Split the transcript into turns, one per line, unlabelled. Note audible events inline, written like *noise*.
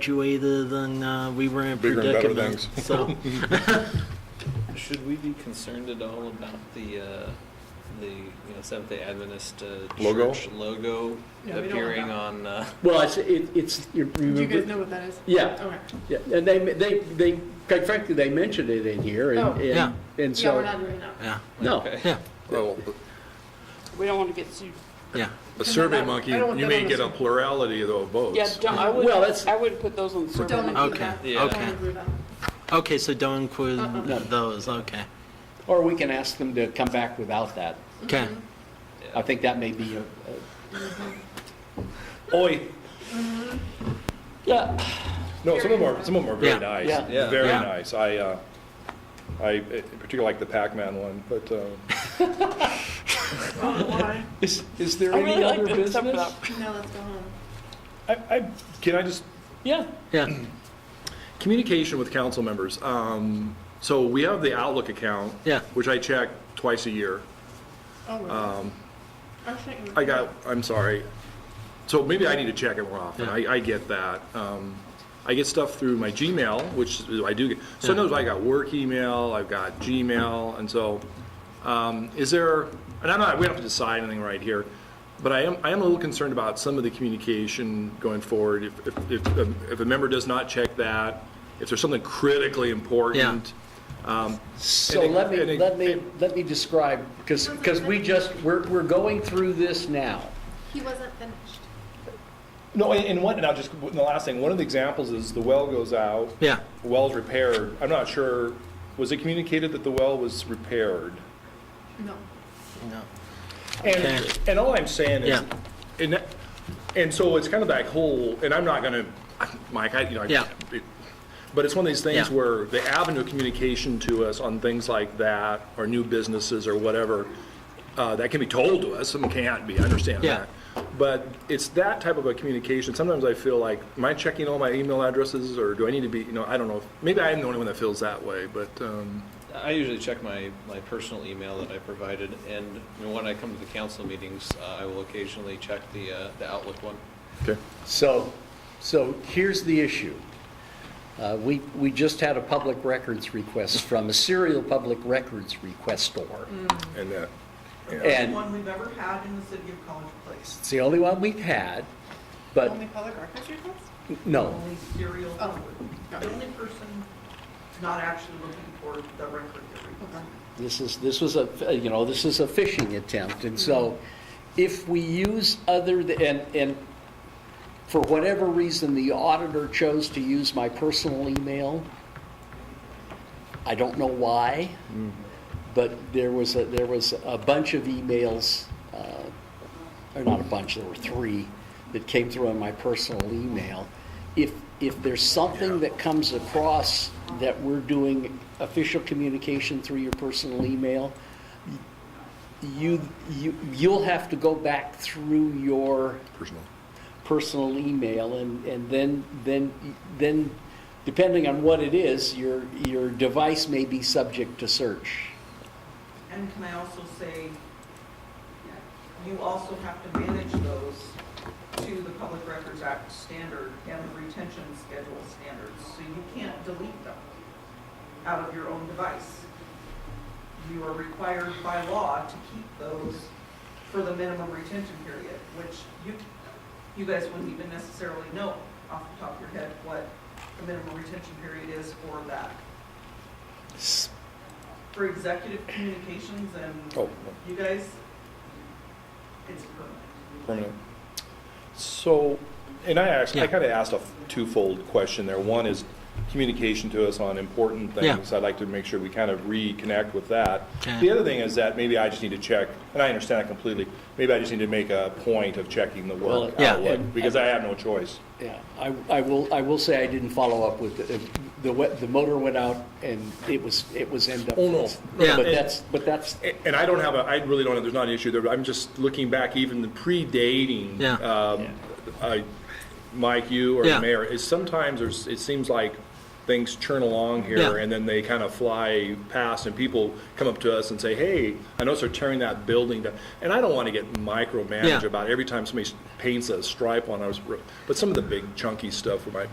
graduated and uh, we were in
Bigger and better
predicament.
things.
*laughs* So,
Should we be concerned at all about the, uh, the, you know, Seventh Day Adventist, uh,
Logo?
church logo
Yeah, we don't want
appearing
that.
on, uh,
Well, it's, it- it's, you
Do you guys
remember?
know what that is?
Yeah,
Okay.
yeah, and they, they, they, quite frankly, they mentioned it in here,
Oh.
and,
Yeah.
and- and
Yeah, we're
so,
not doing that.
yeah,
*laughs*
no.
Okay.
yeah,
Well,
We don't want to get sued.
yeah.
a survey monkey,
I don't want
you
that
may
on
get
the-
a plurality of those votes.
Yeah, don't, I
Well,
would,
that's-
I would put those on the survey.
Don't
monkey.
include
Okay,
that.
Yeah.
Don't
okay.
include that.
Okay, so don't include
Uh-uh.
those, okay.
Or we can ask them to come back without that.
Okay,
I think that may be a. a- Oi.
Mm-hmm.
Yeah,
No, some of them are, some of them are
Yeah.
very nice,
Yeah.
Yeah.
very
Yeah.
nice. I, uh, I particularly like the Pac-Man one, but, uh,
Oh, *laughs* why?
is, is there
I really
any
like
other
that except for
business?
that.
No, let's go home.
I, I, can I just
Yeah,
yeah,
Communication with council members. Um, So we have the Outlook account.
Yeah.
Which I check twice a year.
Oh, really? Actually, you-
I got, I'm sorry. So maybe I need to check it more often.
Yeah.
I, I get that. Um, I get stuff through my Gmail, which I do get. Sometimes I got work email, I've got Gmail, and so, um, is there, and I'm not, we don't have to decide anything right here, but I am, I am a little concerned about some of the communication going forward. If, if, if, um, if a member does not check that, if there's something critically important.
so
And it-
let me,
and it-
let me, let me describe, because, because we just, we're, we're going through this now.
He wasn't finished.
No, and, and one, and I'll just, and the last thing, one of the examples is the well goes out.
yeah.
well's repaired, I'm not sure, was it communicated that the well was repaired?
No.
Okay.
And, and all I'm saying is,
Yeah.
and, that- and so it's kind of that whole, and I'm not gonna, Mike, I, you know. I-
Yeah.
But it's one of these things
Yeah.
where the avenue of communication to us on things like that, or new businesses or whatever, uh, that can be told to us, some can't be, I understand
Yeah.
that. But it's that type of a communication, sometimes I feel like, am I checking all my email addresses, or do I need to be, you know, I don't know, maybe I am the only one that feels that way, but, um,
I usually check my, my personal email that I provided, and you know, when I come to the council meetings, uh, I will occasionally check the, uh, the Outlook one.
okay.
So, so here's the issue. Uh, We, we just had a public records request from a serial public records requestor.
And uh, that,
And
one we've ever had in the city of College Place.
it's the only one we've had, but
Only public records request?
no.
Only serial
Oh.
number. The only person not actually looking for the record every time.
This is, this was a, you know, this is a phishing attempt, and so if we use other, th- and, and for whatever reason, the auditor chose to use my personal email, I don't know why, but there was, a there was a bunch of emails, uh, or not a bunch, there were three, that came through on my personal email. If, if there's something that comes across that we're doing official communication through your personal email, you, you, you'll have to go back through your
personal.
personal email and, and then, then, then, depending on what it is, your, your device may be subject to search.
And can I also say, you also have to manage those to the Public Records Act standard and the retention schedule standards, so you can't delete them out of your own device. You are required by law to keep those for the minimum retention period, which you, you guys wouldn't even necessarily know off the top of your head what the minimum retention period is for that. For executive communications and
Oh,
you guys, it's permanent.
permanent. So, and I actually, I
Yeah.
kind of asked a twofold question there. One is communication to us on important
Yeah.
things. I'd like to make sure we kind of reconnect with that.
Okay.
The other thing is that maybe I just need to check, and I understand that completely, maybe I just need to make a point of checking the
Well,
work
yeah.
outlook, because I have no choice.
Yeah, I, I will, I will say I didn't follow up with, the- the, we- the motor went out and it was, it was end up.
Oh, no.
Yeah.
But that's, but that's,
A- And I don't have a, I really don't, have- there's not an issue there, but I'm just looking back even the predating.
Yeah.
um, uh, Mike, you or
Yeah.
the mayor, is sometimes there's, it seems like things churn along here
Yeah.
and then they kind of fly past and people come up to us and say, hey, I noticed they're tearing that building down. And I don't want to get micromanaged
Yeah.
about every time somebody paints a stripe on us, but some of the big chunky stuff we might be